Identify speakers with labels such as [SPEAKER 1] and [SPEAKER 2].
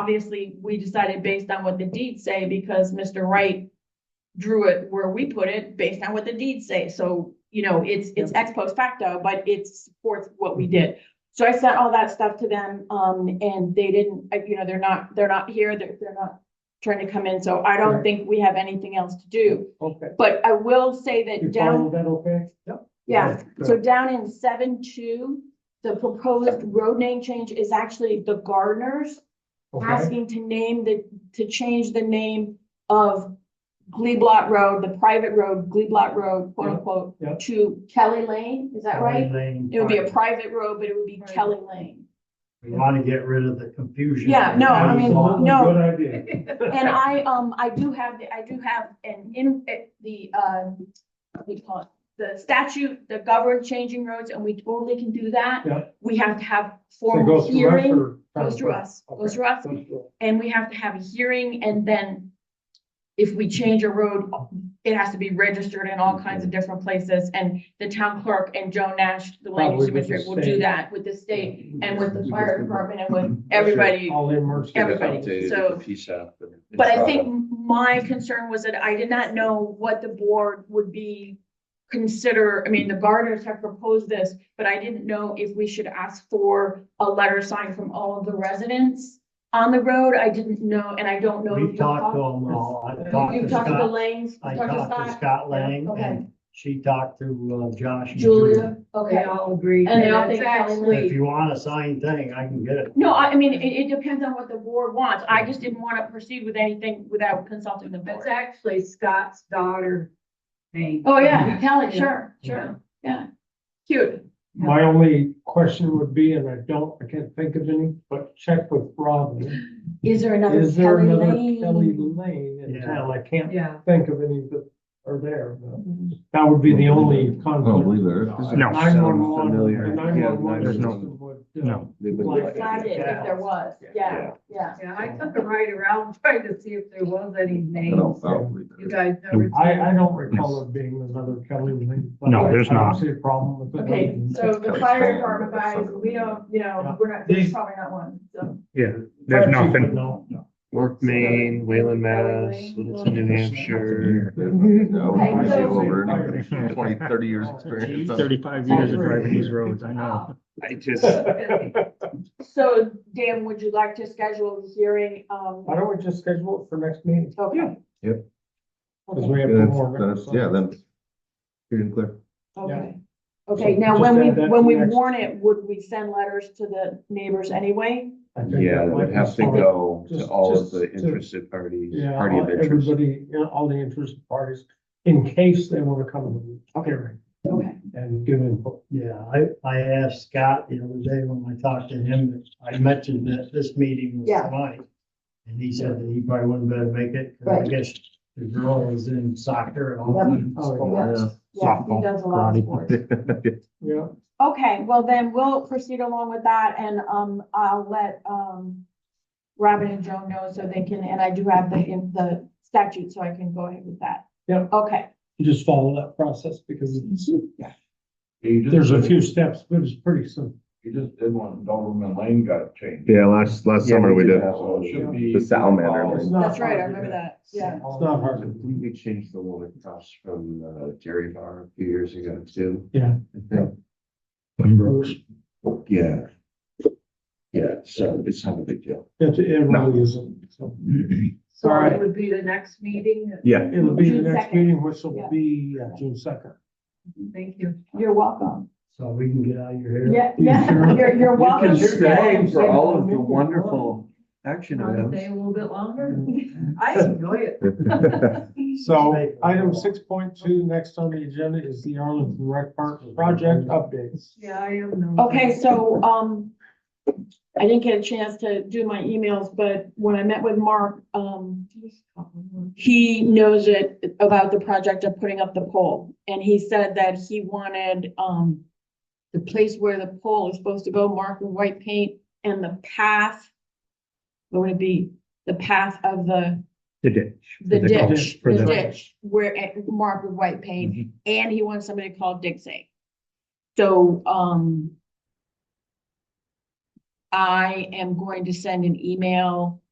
[SPEAKER 1] obviously, we decided based on what the deeds say, because Mr. Wright drew it where we put it, based on what the deeds say, so, you know, it's, it's ex post facto, but it supports what we did. So I sent all that stuff to them, um, and they didn't, I- you know, they're not, they're not here, they're, they're not trying to come in, so I don't
[SPEAKER 2] Right.
[SPEAKER 1] think we have anything else to do.
[SPEAKER 2] Okay.
[SPEAKER 1] But I will say
[SPEAKER 2] You
[SPEAKER 1] that down,
[SPEAKER 2] follow that okay? Yep.
[SPEAKER 1] yeah,
[SPEAKER 2] Good.
[SPEAKER 1] so down in seven two, the proposed road name change is actually the Gardeners
[SPEAKER 2] Okay,
[SPEAKER 1] asking to name the, to change the name of Gleeblatt Road, the private road, Gleeblatt Road, quote
[SPEAKER 2] Yeah, yeah.
[SPEAKER 1] unquote, to Kelly Lane, is that right? It would be a private road, but it would be
[SPEAKER 3] Right.
[SPEAKER 1] Kelly Lane.
[SPEAKER 4] We want to get rid of the confusion.
[SPEAKER 1] Yeah, no, I mean,
[SPEAKER 2] Absolutely,
[SPEAKER 1] no.
[SPEAKER 2] Good idea.
[SPEAKER 1] And I, um, I do have, the I do have an, in, eh, the, um, what do you call it? The statute that governs changing roads, and we totally can do that.
[SPEAKER 2] Yeah.
[SPEAKER 1] We have to have
[SPEAKER 2] So it
[SPEAKER 1] formal
[SPEAKER 2] goes through us
[SPEAKER 1] hearing,
[SPEAKER 2] or-
[SPEAKER 1] goes through us, goes through us,
[SPEAKER 2] Goes through us.
[SPEAKER 1] and we have to have a hearing, and then if we change a road, it has to be registered in all kinds of different places, and the town clerk and Joe Nash, the land use
[SPEAKER 2] Probably with the
[SPEAKER 1] administrator, will do
[SPEAKER 2] state.
[SPEAKER 1] that with the state and with the
[SPEAKER 5] You
[SPEAKER 1] fire
[SPEAKER 5] just-
[SPEAKER 1] department and with everybody.
[SPEAKER 2] All in mercy.
[SPEAKER 5] Get it
[SPEAKER 1] everybody,
[SPEAKER 5] updated
[SPEAKER 1] so-
[SPEAKER 5] with PSAP and-
[SPEAKER 1] But I think my concern was that I did not know what the board would be consider, I mean, the gardeners have proposed this, but I didn't know if we should ask for a letter signed from all of the residents on the road. I didn't know, and I don't know. if
[SPEAKER 4] We
[SPEAKER 1] you
[SPEAKER 4] talked to them all. I talked to
[SPEAKER 1] You've talked to the
[SPEAKER 4] Scott.
[SPEAKER 1] Lanes,
[SPEAKER 4] I
[SPEAKER 1] you've talked to
[SPEAKER 4] talked to
[SPEAKER 1] Scott,
[SPEAKER 4] Scott Lang
[SPEAKER 1] Okay.
[SPEAKER 4] and she talked to uh, Josh. and
[SPEAKER 1] Julia,
[SPEAKER 3] They
[SPEAKER 1] okay.
[SPEAKER 3] all agree.
[SPEAKER 1] And they all think
[SPEAKER 3] That's
[SPEAKER 1] Kelly
[SPEAKER 4] If
[SPEAKER 3] actually-
[SPEAKER 4] you want a signed thing, I can get it.
[SPEAKER 1] No, I, I mean, it, it depends on what the board wants. I just didn't want to proceed with anything without consulting the board.
[SPEAKER 3] That's actually Scott's daughter. name.
[SPEAKER 1] Oh, yeah, Kelly, sure,
[SPEAKER 3] Yeah.
[SPEAKER 1] sure, yeah. Cute.
[SPEAKER 2] My only question would be, and I don't, I can't think of any, but check with Robin.
[SPEAKER 1] Is there another
[SPEAKER 2] Is there
[SPEAKER 1] Kelly
[SPEAKER 2] another Kelly
[SPEAKER 1] Lane?
[SPEAKER 2] Lane in
[SPEAKER 4] Yeah.
[SPEAKER 2] town? I can't
[SPEAKER 3] Yeah.
[SPEAKER 2] think of any that are there. but
[SPEAKER 1] Mm-hmm.
[SPEAKER 2] That would be the only
[SPEAKER 5] I
[SPEAKER 6] I don't
[SPEAKER 2] conflict.
[SPEAKER 6] believe there is.
[SPEAKER 5] No.
[SPEAKER 2] Nine one one,
[SPEAKER 5] Familiar.
[SPEAKER 2] the
[SPEAKER 5] Yeah,
[SPEAKER 2] nine one one
[SPEAKER 5] there's no-
[SPEAKER 2] system would. uh,
[SPEAKER 6] no.
[SPEAKER 5] They would-
[SPEAKER 2] Like-
[SPEAKER 1] Decided if there was, yeah, yeah.
[SPEAKER 3] Yeah, I took a ride around trying to see if there was any
[SPEAKER 6] I
[SPEAKER 3] names.
[SPEAKER 6] don't, I don't believe there
[SPEAKER 3] You
[SPEAKER 6] is.
[SPEAKER 3] guys never.
[SPEAKER 2] I, I don't recall it being another Kelly Lane. but
[SPEAKER 7] No,
[SPEAKER 2] I-
[SPEAKER 7] there's
[SPEAKER 2] I don't
[SPEAKER 7] not.
[SPEAKER 2] see a problem with it.
[SPEAKER 1] Okay, so the fire department guys, we don't, you know,
[SPEAKER 2] Yeah.
[SPEAKER 1] we're not, there's
[SPEAKER 2] These-
[SPEAKER 1] probably not one, so.
[SPEAKER 7] Yeah, there's
[SPEAKER 2] Fire chief would
[SPEAKER 7] nothing.
[SPEAKER 2] know.
[SPEAKER 8] North Maine, Wayland, Mass, Littleton, New Hampshire.
[SPEAKER 6] No, I
[SPEAKER 1] Okay,
[SPEAKER 6] see
[SPEAKER 1] so-
[SPEAKER 6] over it. Twenty, thirty years
[SPEAKER 2] Oh,
[SPEAKER 6] experience.
[SPEAKER 7] Thirty-five years of driving these roads, I know.
[SPEAKER 8] I just,
[SPEAKER 1] So Dan, would you like to schedule the hearing? Um,
[SPEAKER 2] Why don't we just schedule it for next meeting?
[SPEAKER 1] okay.
[SPEAKER 6] Yep.
[SPEAKER 2] Because
[SPEAKER 1] Okay,
[SPEAKER 2] we have
[SPEAKER 6] That's-
[SPEAKER 2] more.
[SPEAKER 6] that's- Yeah, then. Clear and clear.
[SPEAKER 1] okay.
[SPEAKER 2] Yeah.
[SPEAKER 1] Okay, now
[SPEAKER 2] Just
[SPEAKER 1] when we,
[SPEAKER 2] add that to
[SPEAKER 1] when we
[SPEAKER 2] next-
[SPEAKER 1] warn it, would we send letters to the neighbors anyway?
[SPEAKER 2] I think
[SPEAKER 5] Yeah,
[SPEAKER 2] that
[SPEAKER 5] it
[SPEAKER 2] might
[SPEAKER 5] would
[SPEAKER 2] be
[SPEAKER 5] have to
[SPEAKER 2] smart.
[SPEAKER 5] go to
[SPEAKER 2] Just-
[SPEAKER 5] all of
[SPEAKER 2] just
[SPEAKER 5] the
[SPEAKER 2] to-
[SPEAKER 5] interested parties,
[SPEAKER 2] Yeah,
[SPEAKER 5] party of
[SPEAKER 2] all-
[SPEAKER 5] interest.
[SPEAKER 2] everybody, you know, all the interested parties, in case they want to come to the hearing
[SPEAKER 1] Okay,
[SPEAKER 2] and give input.
[SPEAKER 4] Yeah, I, I asked Scott the other day when I talked to him, I mentioned that this meeting was
[SPEAKER 1] Yeah.
[SPEAKER 4] tonight. And he said that he probably wouldn't better make it, 'cause
[SPEAKER 1] Right.
[SPEAKER 4] I guess the girl is in soccer and all
[SPEAKER 1] Yep.
[SPEAKER 4] that. uh,
[SPEAKER 2] Oh,
[SPEAKER 1] yeah. yeah, he does a lot of sports.
[SPEAKER 2] Yeah,
[SPEAKER 1] Okay, well then we'll proceed along with that and, um, I'll let, um, Robin and Joan know so they can, and I do have the, in the statute, so I can go ahead with that.
[SPEAKER 2] Yep.
[SPEAKER 1] Okay,
[SPEAKER 2] you just follow that process because it's, there's a few steps, but it's pretty simple.
[SPEAKER 6] You just did one, Doberman Lane got changed.
[SPEAKER 5] Yeah, last, last
[SPEAKER 8] summer we did.
[SPEAKER 6] So it should be.
[SPEAKER 5] The salamander lane.
[SPEAKER 2] It's not
[SPEAKER 1] that's right, I
[SPEAKER 2] hard to do.
[SPEAKER 1] remember that, yeah.
[SPEAKER 2] It's not hard. to do.
[SPEAKER 5] We changed the one across from uh, Dairy Bar a few years ago too.
[SPEAKER 2] Yeah.
[SPEAKER 5] I think. Yeah. Yeah, so it's not a big deal.
[SPEAKER 2] It, it really isn't. So
[SPEAKER 3] So
[SPEAKER 2] All right.
[SPEAKER 3] it would be the next meeting.
[SPEAKER 5] Yeah.
[SPEAKER 2] It'll be the
[SPEAKER 1] June
[SPEAKER 2] next
[SPEAKER 1] second.
[SPEAKER 2] meeting, which
[SPEAKER 1] Yeah.
[SPEAKER 2] will be uh, June second.
[SPEAKER 3] Thank you.
[SPEAKER 1] You're welcome.
[SPEAKER 4] So we can get out of your hair.
[SPEAKER 1] Yeah, yeah, you're, you're welcome.
[SPEAKER 2] can stay.
[SPEAKER 1] to
[SPEAKER 2] for all of the wonderful
[SPEAKER 5] action
[SPEAKER 3] Want to stay a little bit longer?
[SPEAKER 4] Mm-hmm.
[SPEAKER 3] I enjoy it.
[SPEAKER 2] So item six point two, next on the agenda is the Arlington Rec Park project updates.
[SPEAKER 3] Yeah, I am.
[SPEAKER 1] Okay, so, um, I didn't get a chance to do my emails, but when I met with Mark, um, he knows it about the project of putting up the pole. And he said that he wanted, um, the place where the pole is supposed to go marked with white paint and the path. What would it be? The path of the,
[SPEAKER 7] They did.
[SPEAKER 1] the
[SPEAKER 7] The ditch
[SPEAKER 1] ditch,
[SPEAKER 7] for
[SPEAKER 1] the
[SPEAKER 7] the-
[SPEAKER 1] ditch, where it marked with white paint. And he wants somebody called Dixie. So, um, I am going to send an email